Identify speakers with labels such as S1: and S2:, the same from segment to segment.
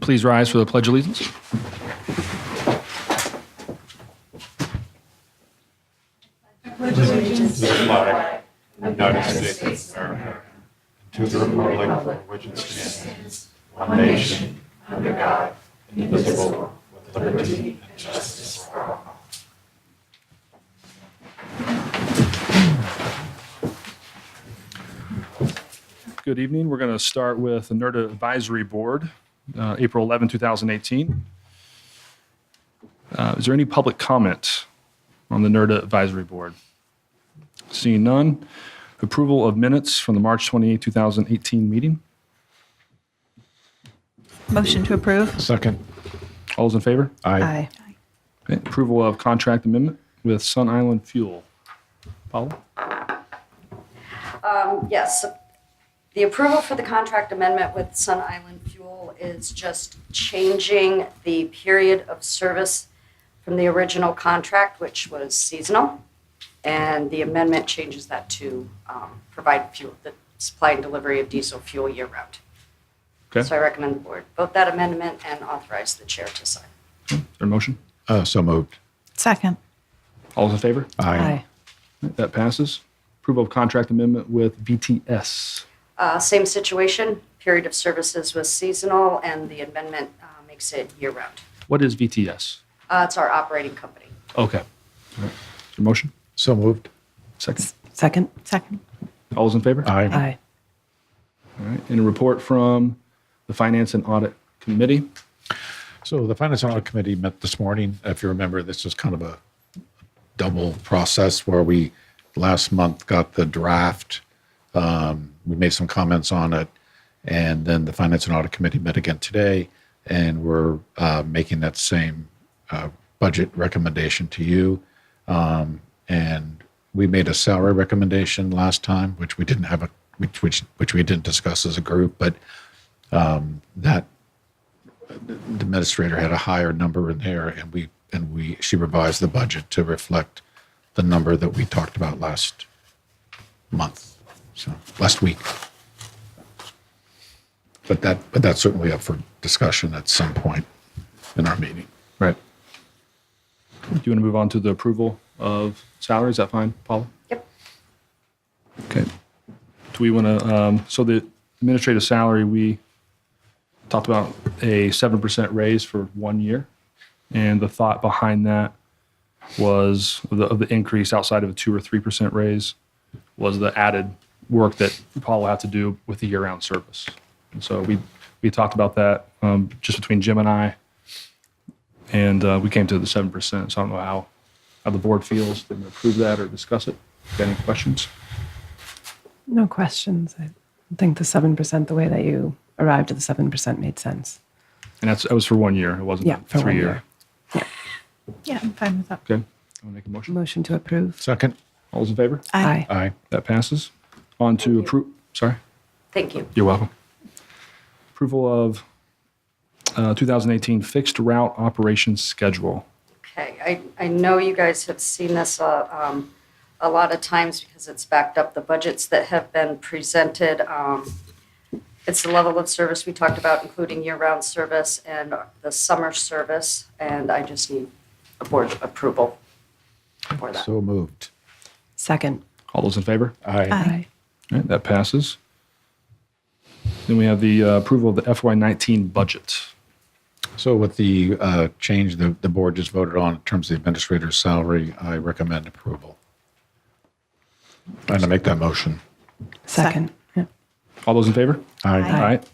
S1: Please rise for the Pledge of Allegiance. Good evening. We're going to start with the NERDA Advisory Board, uh, April 11, 2018. Uh, Is there any public comment on the NERDA Advisory Board? Seeing none. Approval of minutes from the March 28, 2018 meeting.
S2: Motion to approve?
S3: Second.
S1: All those in favor?
S3: Aye.
S1: Okay. Approval of contract amendment with Sun Island Fuel. Paula?
S4: Yes, the approval for the contract amendment with Sun Island Fuel is just changing the period of service from the original contract, which was seasonal. And the amendment changes that to um, provide fuel, the supply and delivery of diesel fuel year-round.
S1: Okay.
S4: So I recommend the board vote that amendment and authorize the chair to sign.
S1: Is there a motion?
S3: Uh, so moved.
S2: Second.
S1: All those in favor?
S3: Aye.
S1: That passes. Approval of contract amendment with VTS.
S4: Uh, Same situation, period of services was seasonal, and the amendment uh, makes it year-round.
S1: What is VTS?
S4: Uh, It's our operating company.
S1: Okay. Is there a motion?
S3: So moved.
S1: Second.
S5: Second?
S2: Second.
S1: All those in favor?
S3: Aye.
S5: Aye.
S1: All right. And a report from the Finance and Audit Committee.
S3: So the Finance and Audit Committee met this morning. If you remember, this is kind of a double process where we last month got the draft. Um, we made some comments on it. And then the Finance and Audit Committee met again today. And we're uh, making that same uh, budget recommendation to you. Um, and we made a salary recommendation last time, which we didn't have a which which which we didn't discuss as a group, but um, that the administrator had a higher number in there and we and we she revised the budget to reflect the number that we talked about last month so last week but that but that's certainly up for discussion at some point in our meeting
S1: Right. Do you want to move on to the approval of salary? Is that fine, Paula?
S4: Yep.
S1: Okay. Do we want to, um, so the administrative salary, we talked about a 7% raise for one year. And the thought behind that was the, of the increase outside of a two or 3% raise was the added work that Paul will have to do with the year round service. And so we, we talked about that um, just between Jim and I. And uh, we came to the 7%. So I don't know how, how the board feels. Did we approve that or discuss it? Got Any questions?
S5: No questions. I think the 7%, the way that you arrived at the 7% made sense.
S1: And that's, that was for one year. It wasn't
S5: Yeah,
S1: a
S5: for one
S1: three year.
S5: year.
S2: Yeah, I'm fine with that.
S1: Okay. i to make a motion.
S5: Motion to approve?
S3: second
S5: Mm-hmm.
S1: All those in favor?
S2: Aye.
S3: aye
S1: That passes. On to approve. Sorry.
S4: Thank you.
S1: You're welcome. Approval of uh, 2018 fixed route operations schedule.
S4: Okay, I, I know you guys have seen this uh, um, a lot of times because it's backed up the budgets that have been presented. um, It's the level of service we talked about, including year-round service and the summer service, and I just need a board approval for that.
S3: so moved
S5: Second?
S1: All those in favor?
S3: aye
S2: Aye.
S1: All right, that passes. Then we have the uh, approval of the FY19 budget.
S3: so with the uh, change the, the board just voted on in terms of the administrator's salary i recommend approval i'm going to make that motion
S5: Second? Yeah.
S1: All those in favor? All
S3: aye
S1: right.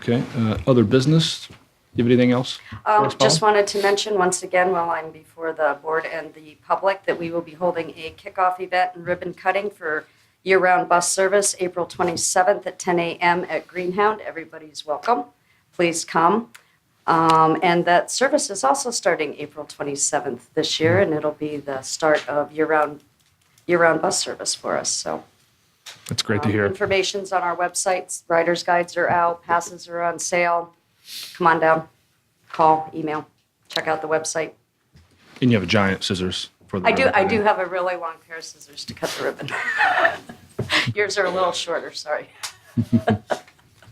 S1: Okay, uh, other business? You have anything else?
S4: Um,
S1: Yes, Paula?
S4: Just wanted to mention once again, while I'm before the board and the public, that we will be holding a kickoff event and ribbon cutting for year-round bus service, April 27th at 10 a.m. at Greenhound. Everybody's welcome. Please come. Um, And that service is also starting April 27th this year, and it'll be the start of year-round, year-round bus service for us, so.
S1: That's great to
S4: um,
S1: hear.
S4: Information's on our websites. Riders' guides are out, passes are on sale. Come on down, call, email, check out the website.
S1: And you have a giant scissors for the.
S4: I do, I
S1: ribbon
S4: do have a really long pair of scissors to cut the ribbon. Yours are a little shorter, sorry.